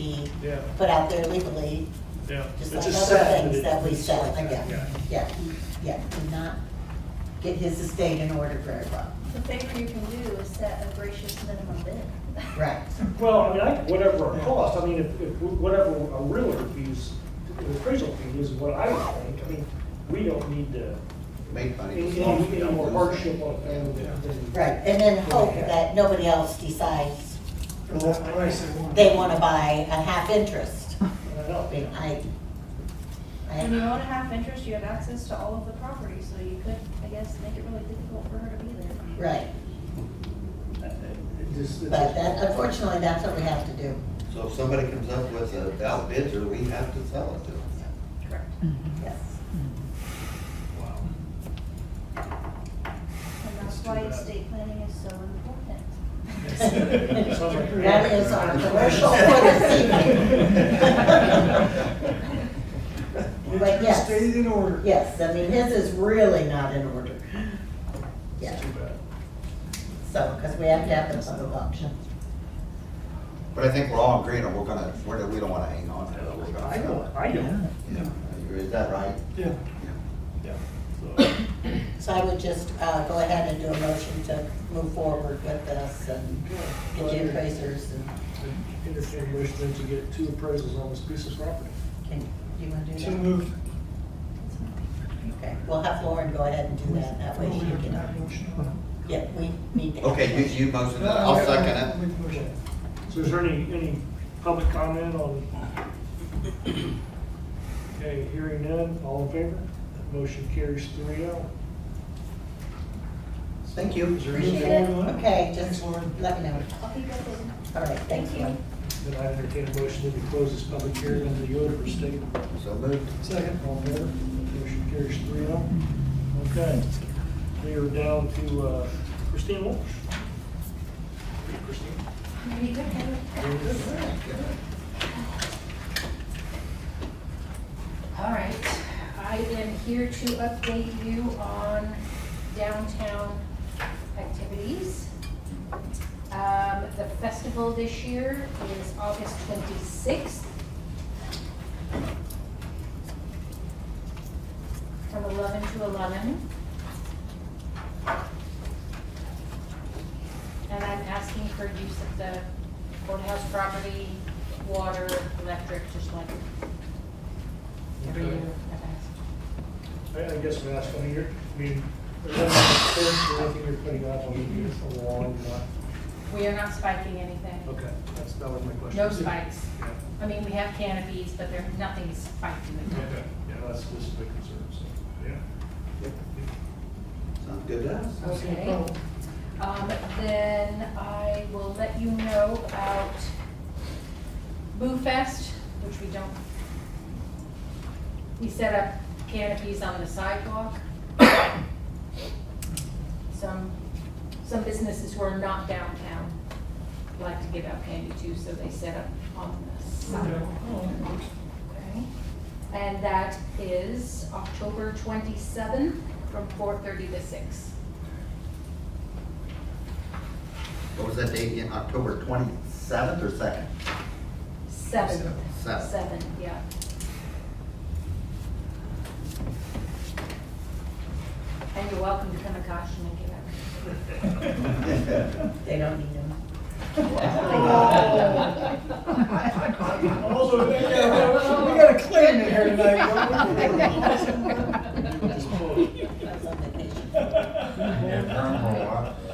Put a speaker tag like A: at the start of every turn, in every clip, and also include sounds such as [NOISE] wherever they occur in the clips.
A: be
B: Yeah.
A: put out there legally,
B: Yeah.
A: just
B: It's
A: like
B: a
A: other
B: set, but
A: things
B: it-
A: that we
B: it's
A: sell,
B: like that,
A: yeah, yeah, yeah, do not get his estate in order very well,
C: The favor you can do is set a gracious minimum bid.
A: right,
B: Well, I mean, I, whatever it costs, I mean, if, if, whatever a realtor fees, the appraisal fee is what I would think, I mean, we don't need to,
D: Make money.
B: any, any any more hardship on a family than. than-
A: right, and then hope that nobody else decides
E: For less price they want.
A: they wanna buy a half interest.
B: I
A: I mean,
B: don't-
A: I,
C: When you
A: I,
C: own a half interest, you have access to all of the property, so you could, I guess, make it really difficult for her to be there.
A: right,
B: it just- it's-
A: but that, unfortunately, that's what we have to do,
D: So if somebody comes up with a valid bidder, we have to sell it to them.
C: Correct.
A: [LAUGHS] yes,
D: Wow.
C: And
B: Let's
C: that's
B: do
C: why
B: that.
C: estate planning is so important.
B: Sounds like-
A: that is our commercial for this
B: [LAUGHS]
A: evening. But yes.
E: Stated in order.
A: Yes, I mean, his is really not in order. Yeah,
B: It's too bad.
A: so, because we have to have the public auction.
D: But I think we're all agreeing, that we're gonna, we're, we don't wanna hang on to it, we're
B: I
D: gonna sell
B: don't,
D: it.
B: I don't.
D: Yeah. Is that right?
E: Yeah.
B: Yeah. So,
A: So I would just uh, go ahead and do a motion to move forward with this and get the appraisers and,
B: Entertain wish then to get two appraisals on this piece of property.
A: can, you want to do
E: To
A: that?
E: move.
A: Okay, we'll have Lauren go ahead and do that, that way she can, yeah, we need to.
D: Okay, you, you motion that, I'll second it.
B: So is there any, any public comment on? Okay, hearing none, all in favor? That Motion carries three oh.
A: Thank you.
C: Appreciate it.
A: Okay,
E: Thanks,
A: just
E: Lauren.
A: let me know.
C: [LAUGHS] I'll keep you updated.
A: All right, thank
C: Thank
A: you.
C: you.
B: Then I entertain a motion that we close this public hearing under the order for state.
D: So moved.
B: Second, all in favor? Motion carries three oh. Okay. We are down to uh, Christine Walsh. Christine?
C: There you go.
B: very good.
F: All right, I am here to update you on downtown activities. Um, the festival this year is August twenty-sixth. From eleven to eleven. And I'm asking for use of the courthouse property, water, electric, just like every year.
B: Okay.
F: I've
B: I
F: asked.
B: I guess we asked one year, I mean, there's anything you're putting up on the year for a long time.
F: We are not spiking anything.
B: Okay, that's, that was my question.
F: No spikes.
B: Yeah,
F: I mean, we have canopies, but there, nothing is spiked in the
B: okay,
F: top.
B: yeah, that's, this is the concern, so, yeah.
D: Sounds good to us.
F: Okay. Um, then I will let you know about Boo Fest, which we don't. We set up canopies on the sidewalk. Some, some businesses who are not downtown like to give out candy too, so they set up on the sidewalk. Okay. And that is October twenty-seventh from four thirty to six.
D: What was that date again, October twenty-seventh or second? [LAUGHS]
F: Seven.
D: Seven.
F: Seven, yeah. And you're welcome to come to Caution and give out.
A: They don't need
E: [LAUGHS]
A: them.
B: Oh.
E: Also, we got a claim in here tonight, don't we?
A: I was on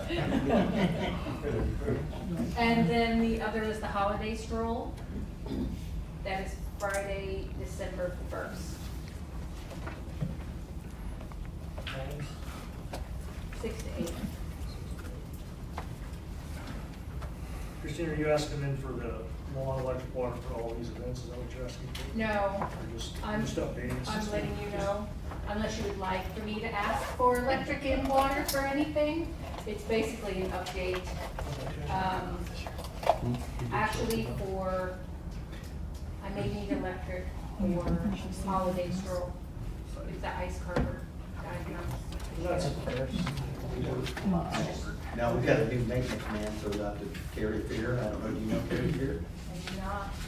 E: [LAUGHS]
A: vacation.
F: And then the other is the holiday stroll. That is Friday, December first, six to eight.
B: Christine, are you asking then for the lawn, electric, water for all these events, is that what you're asking for?
F: No,
B: Or just,
F: I'm-
B: just updating? us?
F: I'm letting you know, unless you would like for me to ask for electric and water for anything, it's basically an update. Um, actually for, I may need electric or holiday stroll, if the ice carver diagnoses.
B: That's-
D: Now, we got a new maintenance man, so we'll have to carry fear, I don't know, do you know carry fear?
F: I do not,